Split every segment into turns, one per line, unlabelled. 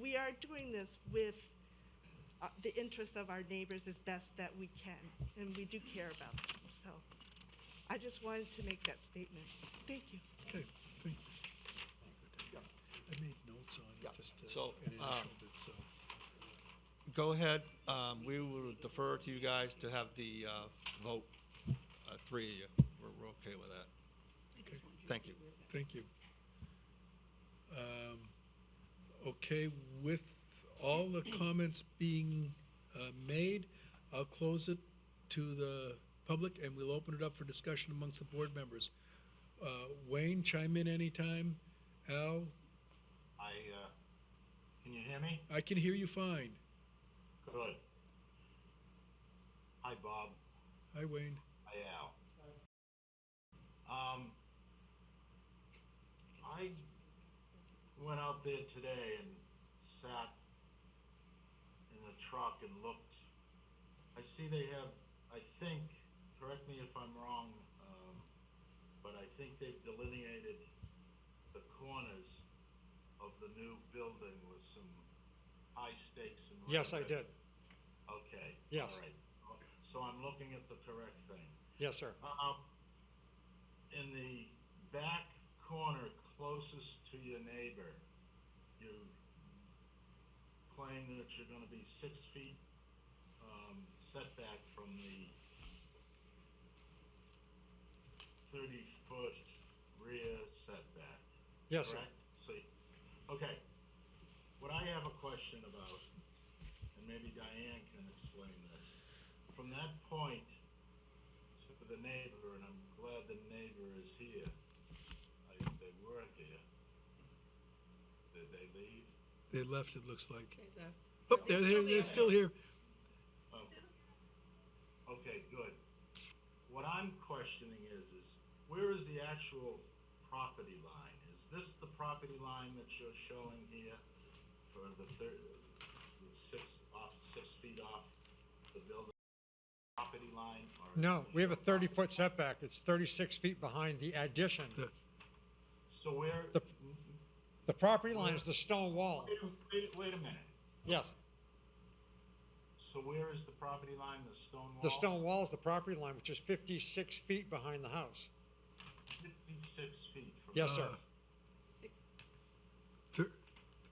we are doing this with uh, the interest of our neighbors as best that we can, and we do care about them. So I just wanted to make that statement. Thank you.
Okay, thank you. I made notes on
Yeah,
it, just
so,
uh, an
uh,
initial bit, so.
Go ahead. Um, We will defer to you guys to have the uh, vote, uh, three of you. We're- We're okay with that.
Okay,
Thank you.
thank you. Um, Okay, with all the comments being uh, made, I'll close it to the public, and we'll open it up for discussion amongst the board members. Uh, Wayne, chime in anytime. Al,
I, uh, can you hear me?
I can hear you fine.
Good. Hi, Bob.
Hi, Wayne.
Hi, Al. Um, I went out there today and sat in the truck and looked. I see they have, I think, correct me if I'm wrong, um, but I think they've delineated the corners of the new building with some high stakes and.
Yes, I
ribbon.
did.
Okay.
Yes.
All right. So I'm looking at the correct thing.
Yes, sir.
Um, in the back corner closest to your neighbor, you claim that you're gonna be six feet, um, setback from the thirty-foot rear setback.
Yes, sir.
correct? So, okay, what I have a question about, and maybe Diane can explain this, from that point to the neighbor, and I'm glad the neighbor is here, I, they were here, did they leave?
They left, it looks like. Oh, they're, they're, they're still here.
Oh. Okay, good. What I'm questioning is, is where is the actual property line? Is this the property line that you're showing here for the third, the six, off, six feet off the building property line? or is
No,
it
we have a
your property-
30-foot setback. It's 36 feet behind the addition.
The-
So where,
The- The property line is the stone wall.
wait, wait, wait a minute.
Yes,
So where is the property line, the stone wall?
the stone wall is the property line, which is 56 feet behind the house.
Fifty-six feet from.
Yes, sir.
Uh, thir-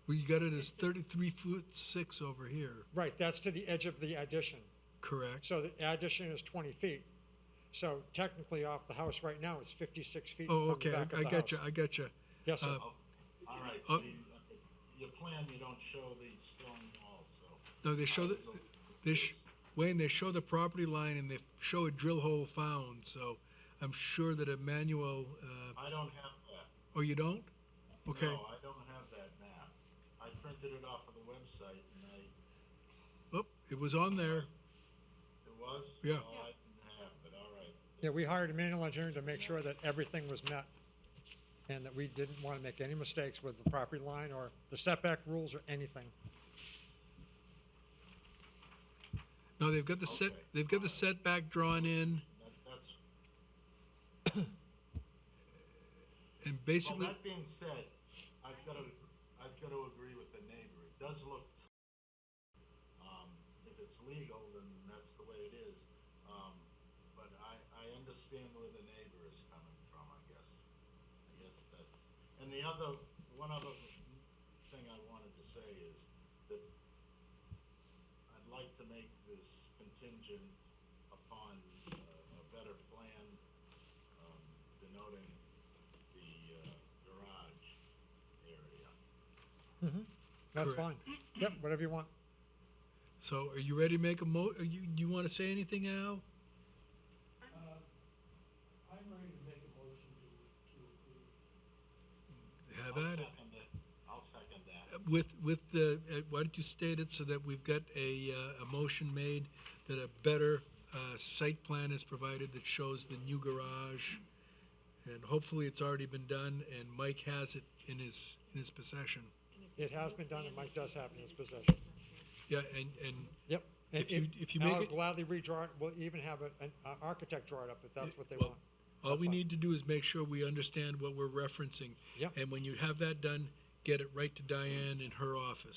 We got it as thirty-three foot six over here,
Right, that's to the edge of the addition.
correct?
So the addition is 20 feet. So technically off the house right now, it's 56 feet
Oh,
from the
okay, I
back of
I
the
got you,
house.
I got you.
Yes, sir.
Uh,
Oh, all right,
Uh,
so you- your plan, you don't show the stone wall, so.
No, they show
I
the,
was a little
they, sh-
confused.
Wayne, they show the property line and they show a drill hole found, so I'm sure that Emmanuel, uh,
I don't have that.
oh, you don't? Okay,
No, I don't have that map. I printed it off of the website and I,
oh, it was on there,
it was?
Yeah.
Oh, I didn't have, but all right.
Yeah, we hired a manual engineer to make sure that everything was met and that we didn't want to make any mistakes with the property line or the setback rules or anything.
no, they've got the set,
Okay.
they've got the setback drawn in,
That, that's,
and
well,
basically,
that being said, I've got to, I've got to agree with the neighbor. It does look, um, if it's legal, then that's the way it is. Um, but I, I understand where the neighbor is coming from, I guess. I guess that's, and the other, one other thing I wanted to say is that I'd like to make this contingent upon uh, a better plan um, denoting the uh, garage area.
That's fine.
Correct.
Yep, whatever you want.
so are you ready to make a mo, are you, you wanna say anything, Al?
Uh, I'm ready to make a motion to, to approve.
Have
I'll
at it.
second it. I'll second that.
With, with the, uh, why don't you state it so that we've got a, uh, a motion made that a better uh, site plan is provided that shows the new garage? And hopefully it's already been done and Mike has it in his, in his possession.
It has been done and Mike does have in his possession.
Yeah, and, and,
Yep. And
If you- if you make
I'll
it-
gladly redraw, it. we'll even have a- an uh, architect draw it up if that's what they
Well,
want.
all
That's
we
fine.
need to do is make sure we understand what we're referencing.
Yep.
And when you have that done, get it right to Diane in her office.